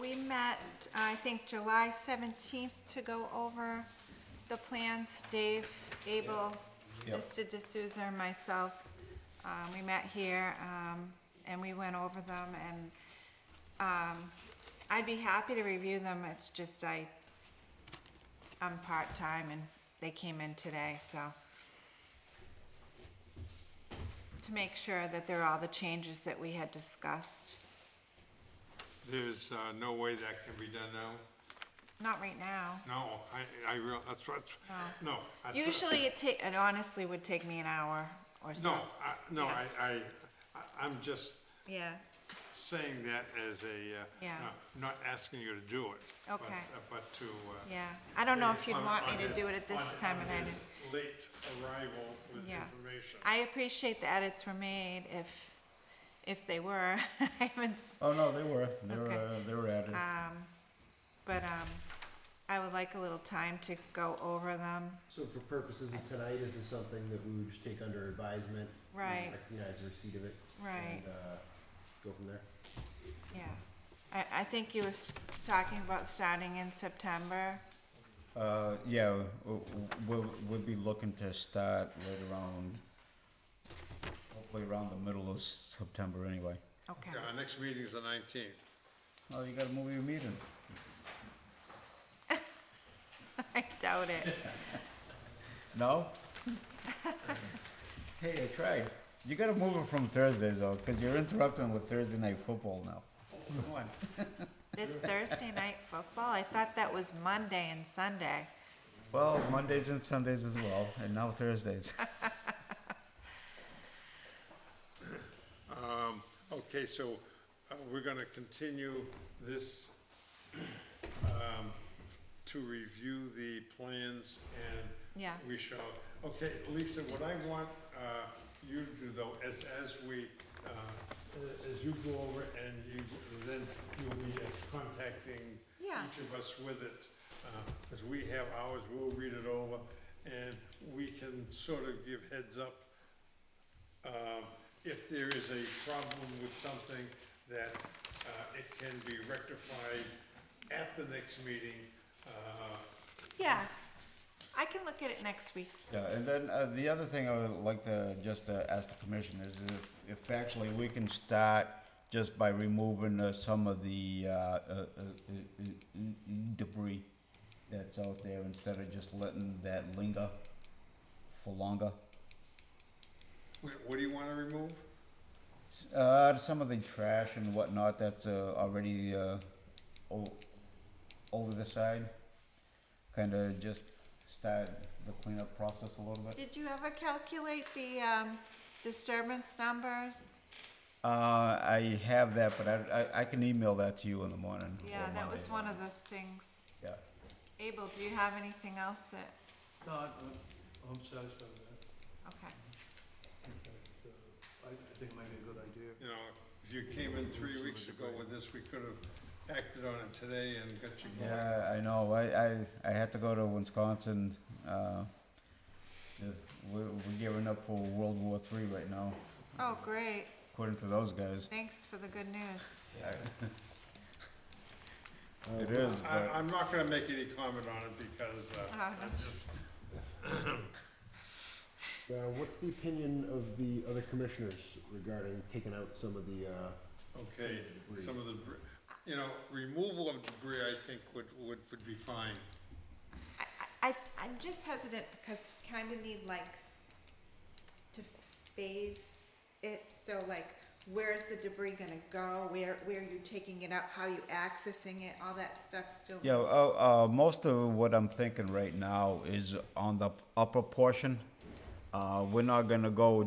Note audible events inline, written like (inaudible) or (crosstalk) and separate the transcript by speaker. Speaker 1: we met, I think, July seventeenth to go over the plans. Dave, Abel,
Speaker 2: Yep.
Speaker 1: Mr. D'Souza, and myself. Um, we met here, um, and we went over them, and, um, I'd be happy to review them, it's just I, I'm part-time and they came in today, so. To make sure that there are all the changes that we had discussed.
Speaker 3: There's uh, no way that can be done now?
Speaker 1: Not right now.
Speaker 3: No, I, I real, that's what, no. that's what-
Speaker 1: Usually it take, it honestly would take me an hour or so.
Speaker 3: No, I, no, I, I, I- I'm just
Speaker 1: Yeah,
Speaker 3: saying that as a, uh,
Speaker 1: Yeah.
Speaker 3: no, not asking you to do it. but-
Speaker 1: Okay.
Speaker 3: But to. uh,
Speaker 1: yeah. I don't know if you'd
Speaker 3: on-
Speaker 1: want me
Speaker 3: on
Speaker 1: to
Speaker 3: his-
Speaker 1: do it at this
Speaker 3: on-
Speaker 1: time
Speaker 3: on
Speaker 1: of night.
Speaker 3: his Late arrival with
Speaker 1: Yeah.
Speaker 3: information.
Speaker 1: I appreciate the edits were made if, if they were. (laughs) I haven't, s-
Speaker 2: Oh, no, they were, they were,
Speaker 1: Okay.
Speaker 2: uh, they were added.
Speaker 1: but, um, I would like a little time to go over them.
Speaker 4: So for purposes of tonight, this is something that we would just take under advisement? we
Speaker 1: Right.
Speaker 4: Recognize the receipt of it?
Speaker 1: Right.
Speaker 4: And, uh, go from there?
Speaker 1: Yeah. I, I think you was talking about starting in September.
Speaker 2: Uh, yeah, we'll, we'll, we'll be looking to start right around, hopefully around the middle of September anyway.
Speaker 1: Okay,
Speaker 3: Yeah, Our next meeting's the nineteenth.
Speaker 2: Oh, you gotta move your meeting.
Speaker 1: (laughs) I doubt it.
Speaker 2: No? (laughs) Hey, I tried. You gotta move it from Thursday though, cause you're interrupting with Thursday night football now. Come on.
Speaker 1: This Thursday night football, I thought that was Monday and Sunday.
Speaker 2: Well, Mondays and Sundays as well, and now Thursdays. (laughs)
Speaker 3: Okay, so uh, we're gonna continue this um, to review the plans and
Speaker 1: Yeah.
Speaker 3: we shall, okay, Lisa, what I want uh, you to do though, as, as we, uh, as you go over and you, then you'll be contacting
Speaker 1: Yeah.
Speaker 3: each of us with it. uh, As we have ours, we'll read it over and we can sort of give heads up um, if there is a problem with something, that uh, it can be rectified at the next meeting. uh,
Speaker 1: Yeah, I can look at it next week.
Speaker 2: Yeah, and then uh, the other thing I would like to just uh, ask the commission is if, if actually we can start just by removing uh, some of the uh, uh, uh, uh, uh, debris that's out there instead of just letting that linger for longer.
Speaker 3: wh- What do you want to remove?
Speaker 2: Uh, some of the trash and whatnot that's uh, already uh, o- over the side, kind of just start the cleanup process a little bit.
Speaker 1: Did you ever calculate the um, disturbance numbers?
Speaker 2: Uh, I have that, but I, I, I can email that to you in the morning. or
Speaker 1: Yeah, that was
Speaker 2: Monday.
Speaker 1: one of the things.
Speaker 2: Yeah.
Speaker 1: Abel, do you have anything else that,
Speaker 5: No, I- I'm I'm satisfied with that.
Speaker 1: okay,
Speaker 5: In fact, uh, I I think it might be a good idea.
Speaker 3: You know, if you came in three weeks ago with this, we could have acted on it today and got you going.
Speaker 2: Yeah, I know. I, I, I had to go to Wisconsin. Uh, the- we're, we're gearing up for World War Three right now,
Speaker 1: oh, great,
Speaker 2: according to those guys.
Speaker 1: thanks for the good news.
Speaker 2: It is,
Speaker 3: I,
Speaker 2: but
Speaker 3: I'm not going to make any comment on it because uh,
Speaker 1: Uh,
Speaker 3: I'm just,
Speaker 4: Now, Uh, what's the opinion of the other commissioners regarding taking out some of the, uh,
Speaker 3: okay, some of the, debris- you know, removal of debris, I think would, would, would be fine.
Speaker 1: I, I, I- I'm just hesitant because kind of need like to phase it, so like, where's the debris gonna go? Where, where are you taking it out? How are you accessing it? All that stuff still.
Speaker 2: yeah.
Speaker 1: needs-
Speaker 2: Uh, uh, most of what I'm thinking right now is on the upper portion. Uh, we're not gonna go